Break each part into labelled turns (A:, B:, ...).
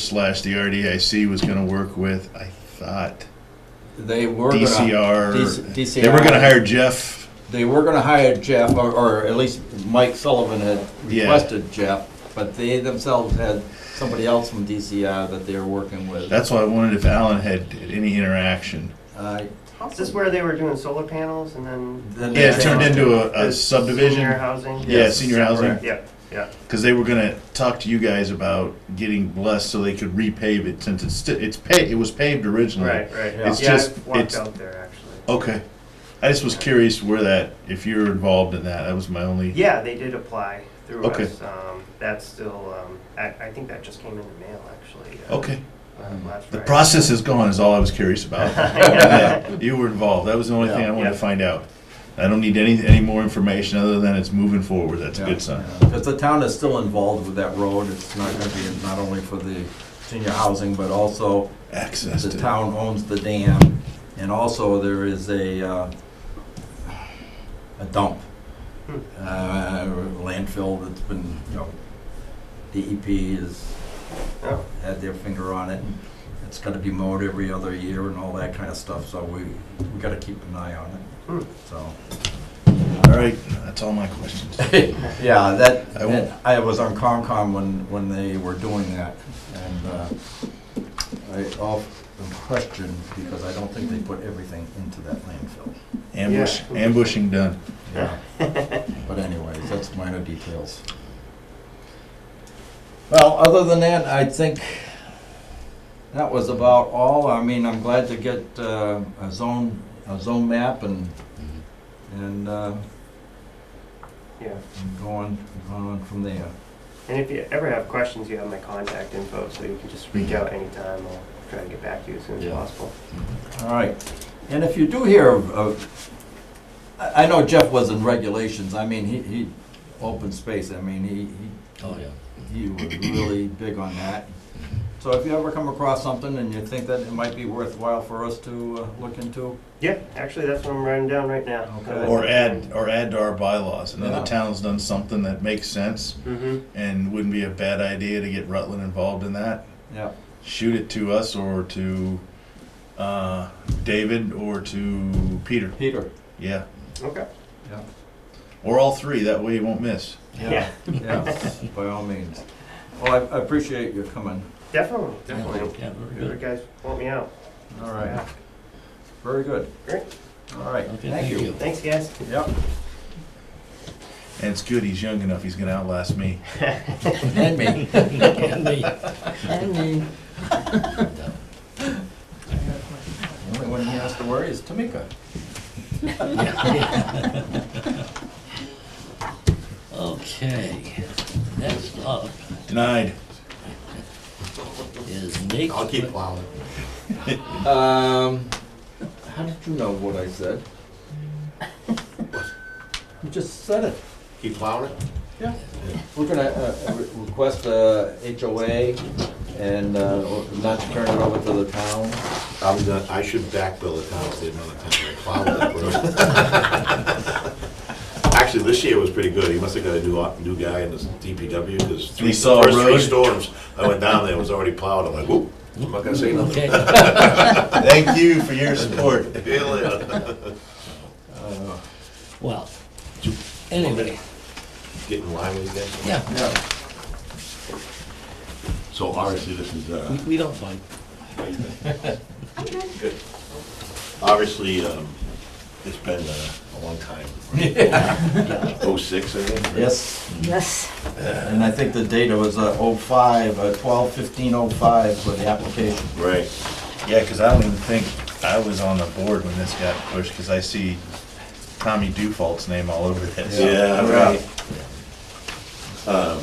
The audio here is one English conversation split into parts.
A: slash the RDIC was gonna work with, I thought,
B: They were gonna-
A: DCR.
B: DC
A: They were gonna hire Jeff,
B: They were gonna hire Jeff, or, or at least Mike Sullivan had
A: Yeah.
B: requested Jeff, but they themselves had somebody else from DCR that they were working with.
A: that's why I wondered if Alan had any interaction.
B: I-
C: Is this where they were doing solar panels and then?
B: then
A: Yeah, it
B: they-
A: turned into a, a
C: Senior
A: subdivision,
C: housing?
A: Yeah, senior housing.
C: Yeah, yeah.
A: cause they were gonna talk to you guys about getting blessed so they could repave it, since it's, sti- it's pa, it was paved originally.
C: Right, right.
A: It's
C: Yeah, I
A: just-
C: Walked
A: it's-
C: out there, actually.
A: Okay, I just was curious where that, if you're involved in that, that was my only.
C: Yeah, they did apply through
A: Okay.
C: us. Um, That's still, um, I, I think that just came in the mail, actually. uh,
A: Okay,
C: uh, last
A: the
C: Friday.
A: process is gone is all I was curious about.
C: Yeah.
A: Yeah, You were involved, that was the only thing I wanted to
C: Yeah.
A: find out. I don't need any, any more information other than it's moving forward, that's a
B: Yeah,
A: good sign.
B: yeah. Because the town is still involved with that road, it's not gonna be, not only for the senior housing, but also
A: Access
B: the
A: to,
B: town owns the dam, and also there is a, uh, a dump.
C: Hmm.
B: Uh, landfill that's been, you know, DEP is
C: Oh,
B: had their finger on it. It's gotta be mowed every other year and all that kind of stuff, so we, we gotta keep an eye on
C: Hmm.
B: it, so.
A: all right, that's all my questions.
B: Yeah, that,
A: I won't-
B: that- I was on Concom when, when they were doing that, and, uh, I often question, because I don't think they put everything into that landfill.
A: Ambush,
C: Yeah.
A: ambushing done.
B: Yeah. But anyways, that's minor details. Well, other than that, I think that was about all. I mean, I'm glad to get uh, a zone, a zone map and, and uh,
C: yeah.
B: and go on, go on from there.
C: And if you ever have questions, you have my contact info, so you can just
A: Mm-hmm.
C: reach out anytime. I'll try to get back to you as soon as
D: Yeah.
C: possible.
B: All right. And if you do hear of- of, I I know Jeff was in regulations. I mean, he, he, open space, I mean, he, he
D: Oh, yeah.
B: he was really big on that. So if you ever come across something and you think that it might be worthwhile for us to uh, look into,
C: Yeah, actually, that's what I'm writing down right now.
B: Okay.
A: Or add, or add to our bylaws. Another
B: Yeah.
A: town's done something that makes sense
C: Mm-hmm.
A: and wouldn't be a bad idea to get Rutland involved in that.
B: yeah,
A: Shoot it to us or to, uh, David or to Peter,
B: Peter.
A: yeah.
C: Okay.
A: Or all three, that way you won't miss.
C: Yeah,
B: Yeah, by all means. Well, I- I appreciate your coming.
C: definitely,
D: Yeah,
C: definitely.
D: Yeah, very
C: If you
D: good.
C: guys want me out.
B: All right, very good.
C: Great.
B: All right,
D: Okay,
B: thank you.
C: Thanks, guys.
B: Yep.
A: And it's good, he's young enough, he's gonna outlast me.
B: And me.
D: And me.
B: And me.
D: No.
B: The only one he has to worry is Tamika.
D: Okay, next up
A: Denied.
D: is Nate.
E: I'll keep plowing.
B: Um, how did you know what I said? You just said it.
E: Keep plowing it?
B: Yeah, we're gonna uh, re- request uh, a HOA and uh, or not to turn it over to the town.
E: I'm done, I should backbill the town, if they didn't know the town had plowed that road. Actually, this year was pretty good, he must have got a new, op- new guy in this DPW, because three,
A: saw a
E: first three
A: road.
E: storms, I went down there, it was already plowed, I'm like, whoop, I'm not gonna say
D: Okay,
E: nothing.
A: Thank you for your support.
E: See you later.
D: well, anyway,
E: Get in line with this.
D: yeah,
B: Yeah.
E: So obviously, this is, uh,
D: we, we don't fight.
E: obviously, um, it's been uh, a long time. Oh, six, I think.
B: Yes,
F: Yes.
B: and I think the data was uh, 05, uh, 12, 15, 05 for the application.
E: Right.
A: Yeah, because I don't even think I was on the board when this got pushed, because I see Tommy Dufault's name all over this.
E: Yeah, right. Um,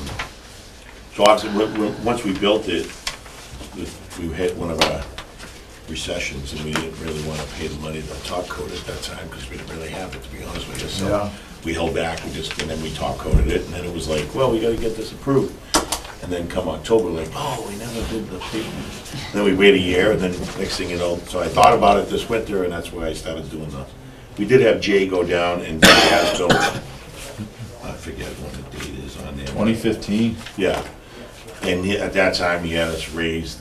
E: So obviously, when- when- once we built it, we- we hit one of our recessions, and we didn't really want to pay the money to top coat at that time, because we didn't really have it, to be honest with you.
B: Yeah.
E: So we held back, and just, and then we top coated it, and then it was like, well, we gotta get this approved. And then come October, like, oh, we never did the paving. Then we wait a year, and then next thing you know, so I thought about it this winter, and that's why I started doing the, we did have Jay go down and do the as-built. I forget what the date is on there.
A: Twenty fifteen,
E: Yeah. And he- at that time, he had us raise